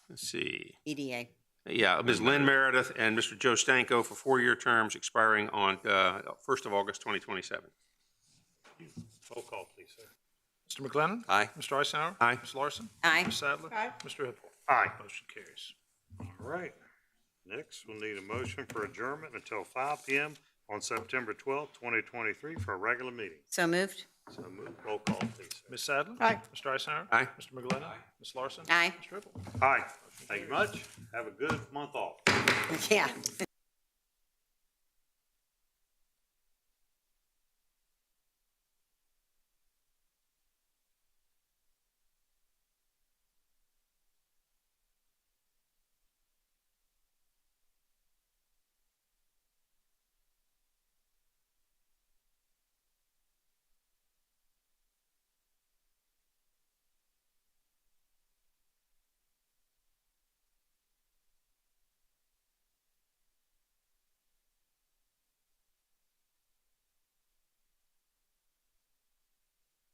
Let's see. EDA. Yeah, Ms. Lynn Meredith and Mr. Joe Stanko for four-year terms expiring on uh, 1st of August 2027. Roll call, please, sir. Mr. McLennan? Aye. Mr. Eisenhower? Aye. Ms. Larson? Aye. Ms. Sadler? Aye. Mr. Hippel? Aye. Motion carries. All right. Next, we'll need a motion for adjournment until five P M on September twelfth, twenty twenty-three for a regular meeting. So moved. So move, roll call, please, sir. Ms. Sadler? Aye. Mr. Eisenhower? Aye. Mr. McLennan? Ms. Larson? Aye. Mr. Hippel? Aye. Thank you much. Have a good month off. Yeah.